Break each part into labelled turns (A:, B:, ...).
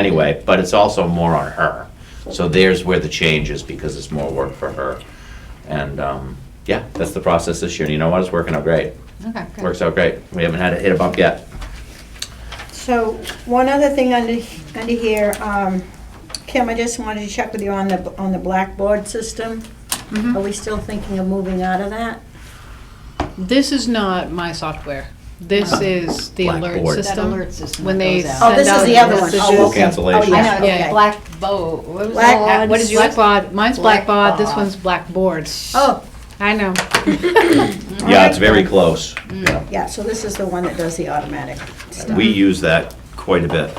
A: anyway, but it's also more on her. So there's where the change is because it's more work for her. And, um, yeah, that's the process this year. And you know what? It's working out great.
B: Okay, good.
A: Works out great. We haven't had to hit a bump yet.
C: So, one other thing under, under here, um, Kim, I just wanted to check with you on the, on the blackboard system.
D: Mm-hmm.
C: Are we still thinking of moving out of that?
D: This is not my software. This is the alert
A: Blackboard. That
D: system.
B: alert system
D: When
B: that
D: they
B: goes
D: send
B: out.
D: out
C: Oh, this is the other one.
D: messages.
C: Oh, okay.
A: Cancellation.
C: Oh,
B: I
C: yeah,
B: know, it's
D: Yeah.
C: okay.
B: Black Bo, what was
C: Black-
B: the
D: Uh,
B: one?
D: What is
B: Black-
D: Blackbaud? Mine's Blackbaud, this
B: Blackbaud.
D: one's Blackboard.
C: Oh,
D: I know.
A: Yeah, it's very close. Yeah.
C: yeah, so this is the one that does the automatic stuff.
A: We use that quite a bit.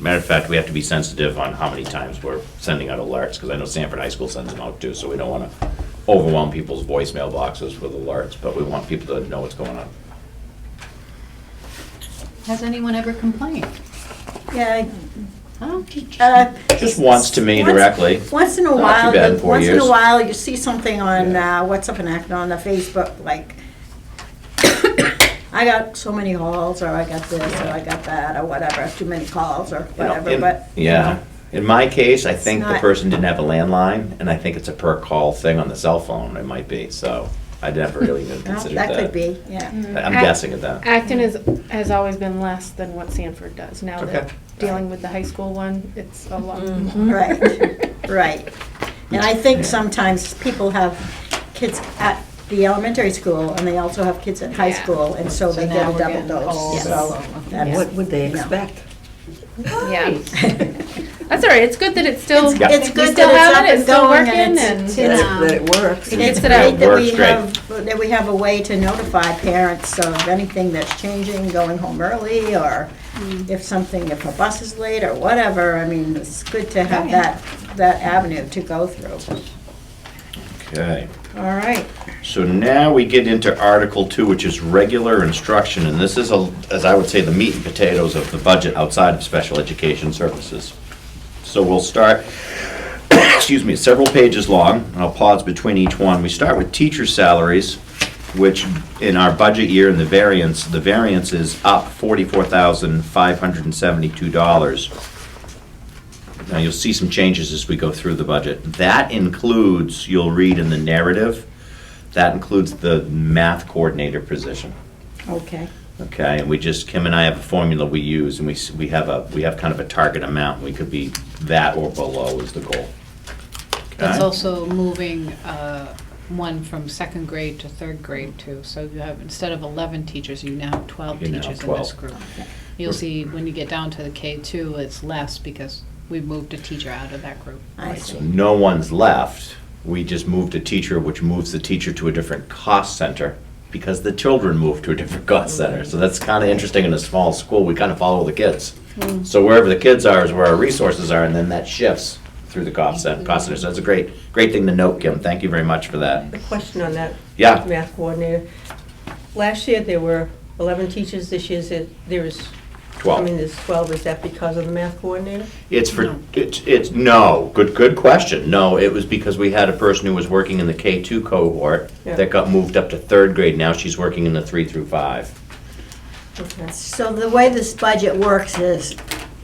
A: Matter of fact, we have to be sensitive on how many times we're sending out alerts, because I know Sanford High School sends them out too, so we don't want to overwhelm people's voicemail boxes with alerts, but we want people to know what's going on.
B: Has anyone ever complained?
C: Yeah,
B: Huh?
C: uh,
A: Just once to me
C: Once-
A: directly.
C: Once in a
A: Not too
C: while,
A: bad in
C: you-
A: four
C: once in a
A: years.
C: while, you see something on
A: Yeah.
C: uh, What's Up in Acton on the Facebook, like, I got so many calls, or I got this, or I got that, or whatever, too many calls, or
A: You know,
C: whatever,
A: in-
C: but. you
A: Yeah. In my case, I think the
C: not-
A: person didn't have a landline, and I think it's a per call thing on the cell phone, it might be, so I never really even
C: know,
A: considered that.
C: That could be, yeah.
A: I'm guessing at that.
E: Acton is, has always been less than what Sanford does. Now that
A: Okay.
E: dealing with the high school one, it's a lot more.
C: Mm-hmm. Right, right. And I think sometimes people have kids at the elementary school, and they also have kids at high
E: Yeah.
C: school, and so
B: So
C: they
B: now
C: get a
B: we're
C: double
B: getting
C: dose,
B: calls.
C: so. that's-
F: What would they
C: you know.
F: expect?
E: Yeah. That's all right. It's good that it's still,
A: It's-
C: It's
E: we
C: good
E: still have
C: that
E: it, it's
C: it's
E: still
C: up and
E: working
C: going, and it's.
F: That
E: and,
B: It's,
F: it- that it works?
C: And it's
E: It out.
C: great that we
A: Works great.
C: have, that we have a way to notify parents of anything that's changing, going home early, or
E: Mm.
C: if something, if a bus is late, or whatever. I mean, it's good to have that, that avenue to go through.
A: Okay.
C: All right.
A: So now we get into Article Two, which is regular instruction, and this is, a, as I would say, the meat and potatoes of the budget outside of special education services. So we'll start, excuse me, several pages long, and I'll pause between each one. We start with teacher salaries, which in our budget year and the variance, the variance is up forty-four thousand five hundred and seventy-two dollars. Now, you'll see some changes as we go through the budget. That includes, you'll read in the narrative, that includes the math coordinator position.
C: Okay.
A: Okay, and we just, Kim and I have a formula we use, and we, s- we have a, we have kind of a target amount. We could be that or below is the goal.
D: That's
A: Okay?
D: also moving uh, one from second grade to third grade too. So you have, instead of 11 teachers, you now have 12
A: You now have
D: teachers in
A: 12.
D: this group. You'll see when you get down to the K2, it's less because we moved a teacher out of that group.
C: I
A: So
C: see.
A: no one's left. We just moved a teacher, which moves the teacher to a different cost center because the children moved to a different cost center. So that's kind of interesting in a small school. We kind of follow the kids.
G: Hmm.
A: So wherever the kids are is where our resources are, and then that shifts through the cost center. Cost center. So that's a great, great thing to note, Kim. Thank you very much for that.
G: A question on that
A: Yeah.
G: math coordinator. Last year, there were 11 teachers, this year's, it- there is, I mean,
A: Twelve.
G: there's 12, is that because of the math coordinator?
A: It's for, it's, it's, no, good, good question. No, it was because we had a person who was working in the K two cohort
G: Yeah.
A: that got moved up to third grade. Now she's working in the three through five.
G: Okay.
C: So the way this budget works is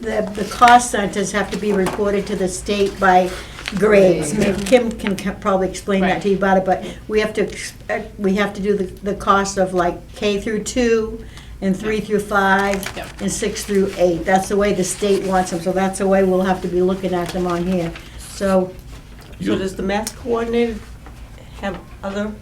C: the, the cost centers have to be reported to the state by grades. I mean, Kim can ca- probably explain that to you about it, but we have to, ex- uh, we have to do the, the cost of like K through two and three through five
D: Yeah.
C: and six through eight. That's the way the state wants them, so that's the way we'll have to be looking at them on here. So,
G: So does the math coordinator have other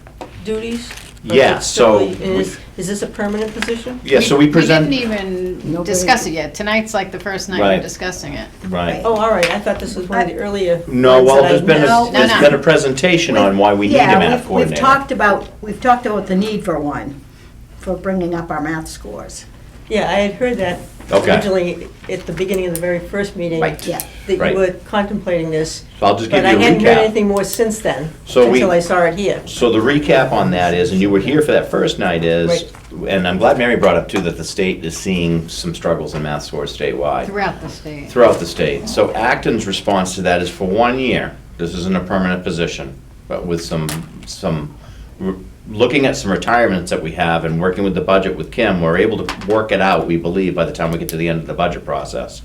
G: duties? Or
A: Yeah,
G: is it solely-
A: so
G: and Is
A: we-
G: is this a permanent position?
A: Yeah, so we present.
D: We didn't even discuss it yet. Tonight's like the first night
A: Right.
D: we're discussing it.
A: Right.
G: Oh, all right, I thought this was one of the earlier.
A: No,
G: ones
A: well,
G: that I
A: there's been,
G: missed.
A: a-
D: No,
A: there's
D: no.
A: been a presentation on why we need a
C: yeah,
A: math
C: we've- we've
A: coordinator.
C: talked about, we've talked about the need for one, for bringing up our math scores.
G: Yeah, I had heard that
A: Okay.
G: originally at the beginning of the very first meeting.
A: Right.
C: Yeah.
G: That
A: Right.
G: you were contemplating this.
A: So I'll just give you a
G: But I hadn't heard
A: recap.
G: anything more since then,
A: So we-
G: until I saw it here.
A: So the recap on that is, and you were here for that first night is, and I'm glad Mary brought up too, that the state is seeing some struggles in math scores statewide.
D: Throughout the state.
A: throughout the state. So Acton's response to that is for one year, this isn't a permanent position, but with some, some, we're looking at some retirements that we have and working with the budget with Kim, we're able to work it out, we believe, by the time we get to the end of the budget process.